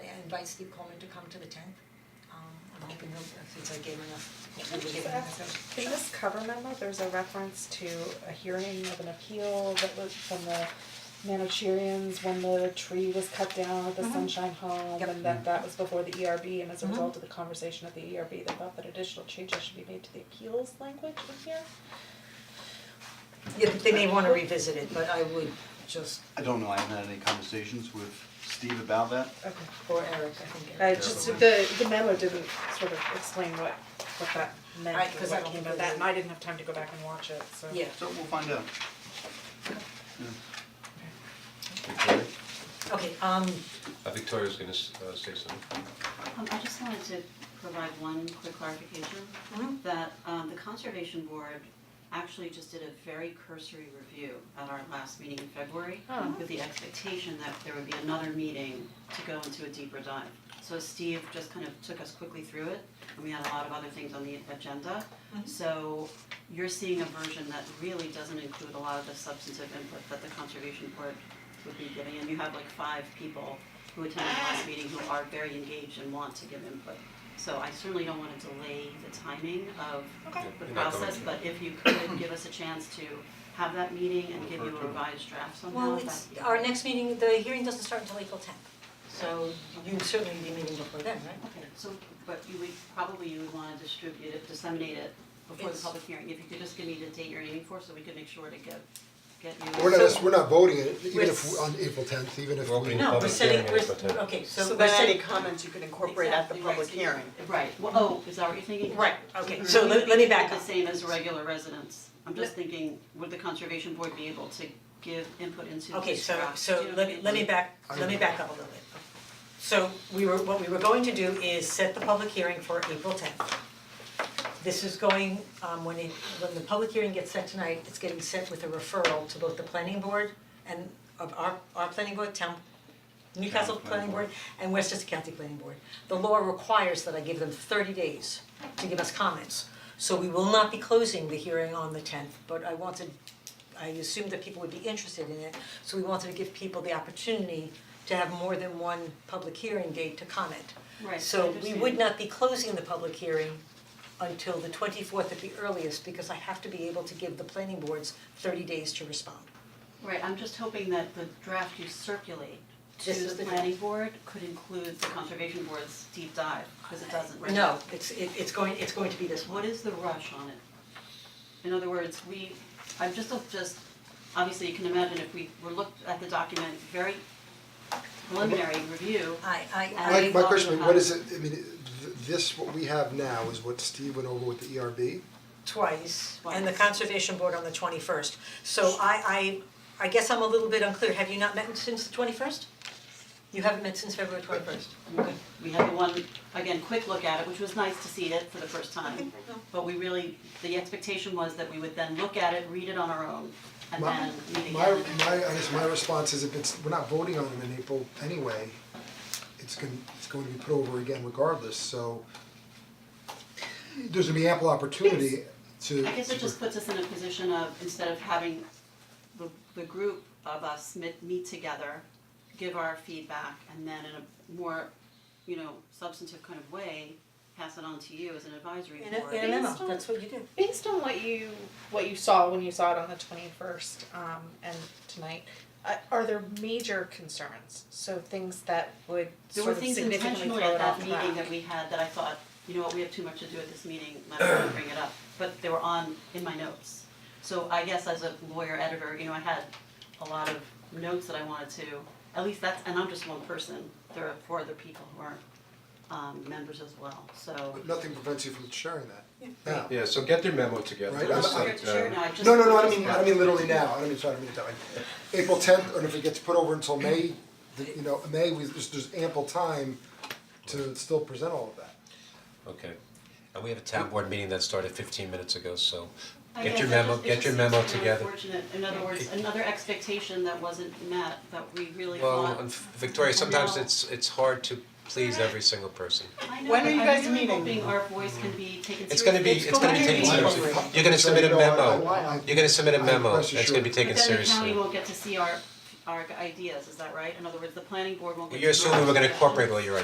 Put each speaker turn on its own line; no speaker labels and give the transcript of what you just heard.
invite Steve Coleman to come to the tenth. Um, I'm hoping he'll, since I gave him enough,
Can I
we'll give
just
him
ask,
enough.
in this cover memo, there's a reference to a hearing of an appeal that was from the Manicheerians when the tree was cut down at the
Mhm.
Sunshine Home,
Yep.
and that that was before the ERB, and as a
Mhm.
result of the conversation at the ERB, they thought that additional changes should be made to the appeals language in here.
Yeah, they may wanna revisit it, but I would just,
I don't know, I haven't had any conversations with Steve about that.
Okay.
or Eric, I think.
I
Eric-
Uh, just, the, the memo didn't sort of explain what, what that meant,
I- 'cause
or
I don't
what came
think
of
it-
that, and I didn't have time to go back and watch it, so.
Yeah,
So we'll find out.
Victoria?
okay, um,
Uh, Victoria's gonna s- uh, say something.
Um, I just wanted to provide one quick clarification.
Mm-hmm.
Mhm.
That, um, the conservation board actually just did a very cursory review at our last meeting in February
Oh.
with the expectation that there would be another meeting to go into a deeper dive. So Steve just kind of took us quickly through it, and we had a lot of other things on the agenda. So you're seeing a version that really doesn't include a lot of the substantive input that the conservation board would be giving, and you have like five people who attended last meeting who are very engaged and want to give input. So I certainly don't wanna delay the timing of
Okay.
the
You're not going
process,
to.
but if you could give us a chance to have that meeting and give you
Refer to
a
it.
revised draft somehow,
well,
that
it's, our next meeting, the hearing doesn't start until April tenth, so you'd certainly be meeting before then, right?
Okay, so, but you would, probably you would wanna distribute it, disseminate it before the
Yes.
public hearing, if you could just give me the date you're aiming for, so we can make sure to get, get you.
We're not,
So-
we're not voting it, even
We're
if,
s-
on April tenth, even if
We're
we,
opening
No, we're
Public
setting,
hearing
we're,
is April 10th.
okay, so
So
we're
then any
setting,
comments you could incorporate at the
Exactly, right,
public
so you-
hearing.
Right, well, oh, is that what you're thinking?
Right, okay,
Mhm.
so let- let me back
The
up.
same as regular residents, I'm
Let-
just thinking, would the conservation board be able to give input into
okay,
this
so
draft? Do
so
you know what
let
I
me
mean?
let me back, let me back up a little bit. So we were, what we were going to do is set the public hearing for April tenth. This is going, um when it, when the public hearing gets set tonight, it's getting set with a referral to both the planning board and of our our planning board, town Newcastle
Planning
Planning Board
Board.
and Westchester County Planning Board. The law requires that I give them thirty days to give us comments. So we will not be closing the hearing on the tenth, but I wanted, I assumed that people would be interested in it, so we wanted to give people the opportunity to have more than one public hearing date to comment.
Right, I
So we
understand.
would not be closing the public hearing until the twenty fourth at the earliest, because I have to be able to give the planning boards thirty days to respond.
Right, I'm just hoping that the draft you circulate to
This is the
the planning board could include the conservation board's deep dive, because it doesn't right now.
No, it's it it's going, it's going to be this one.
What is the rush on it? In other words, we, I'm just, just, obviously you can imagine if we were looked at the document, very preliminary review.
I I I.
my, my question,
Right.
what is it, I mean, th- this, what we have now is what Steve went over with the E ERB.
twice, and the
Twice.
conservation board on the twenty first. So I I I guess I'm a little bit unclear, have you not met since the twenty first? You haven't met since February twenty first?
Okay. We had the one, again, quick look at it, which was nice to see it for the first time. But we really, the expectation was that we would then look at it, read it on our own, and
My,
then meet again.
my, my, I guess my response is if it's, we're not voting on it in April anyway, it's gonna, it's going to be put over again regardless, so there's gonna be ample opportunity to.
I guess it just puts us in a position of, instead of having the, the group of us meet, meet together, give our feedback, and then in a more, you know, substantive kind of way, pass it on to you as an advisory
In a
board.
in a
Based
memo,
on-
that's what you do.
based on what you what you saw when you saw it on the 21st um, and tonight uh, are there major concerns so things that would
There were
sort of
things
significantly
intentionally
throw
at
it off
that
the
meeting
rack?
that we had that I thought, you know what, we have too much to do at this meeting, let us bring it up, but they were on in my notes. So I guess as a lawyer editor, you know, I had a lot of notes that I wanted to, at least that's, and I'm just one person, there are four other people who are um members as well, so.
But nothing prevents you from sharing that now.
Yeah, so get their memo together,
Right,
Just
I'm- I'm-
like,
Sure, sure,
um,
no, I just.
uh, No, no, no, I don't mean, I don't mean literally now, I don't mean, sorry, I don't mean it that way. April tenth, and if it gets put over until May, the- you know, May, we, there's, there's ample time to still present all of that.
Okay, and we have a
Uh,
town board meeting that started fifteen minutes ago, so
I
get
guess
your
it
memo,
just- it
get
just
your
seems
memo
to be
together.
unfortunate. in other words, another expectation that wasn't met, that we really
Well,
thought.
and Victoria, sometimes
No.
it's it's hard to please every single person.
I know,
When
but
are you
I'm
guys
really
meeting?
hoping our voice can be taken seriously.
It's gonna be, it's gonna be taken
going to be-
seriously. You're gonna submit a
So, no, I- I-
memo, you're gonna submit a
I-
memo,
rest
it's gonna be
assured.
taken
But then the
seriously.
county won't get to see our, our ideas, is that right? In other words, the planning board won't get to.
You're assuming we're gonna incorporate all your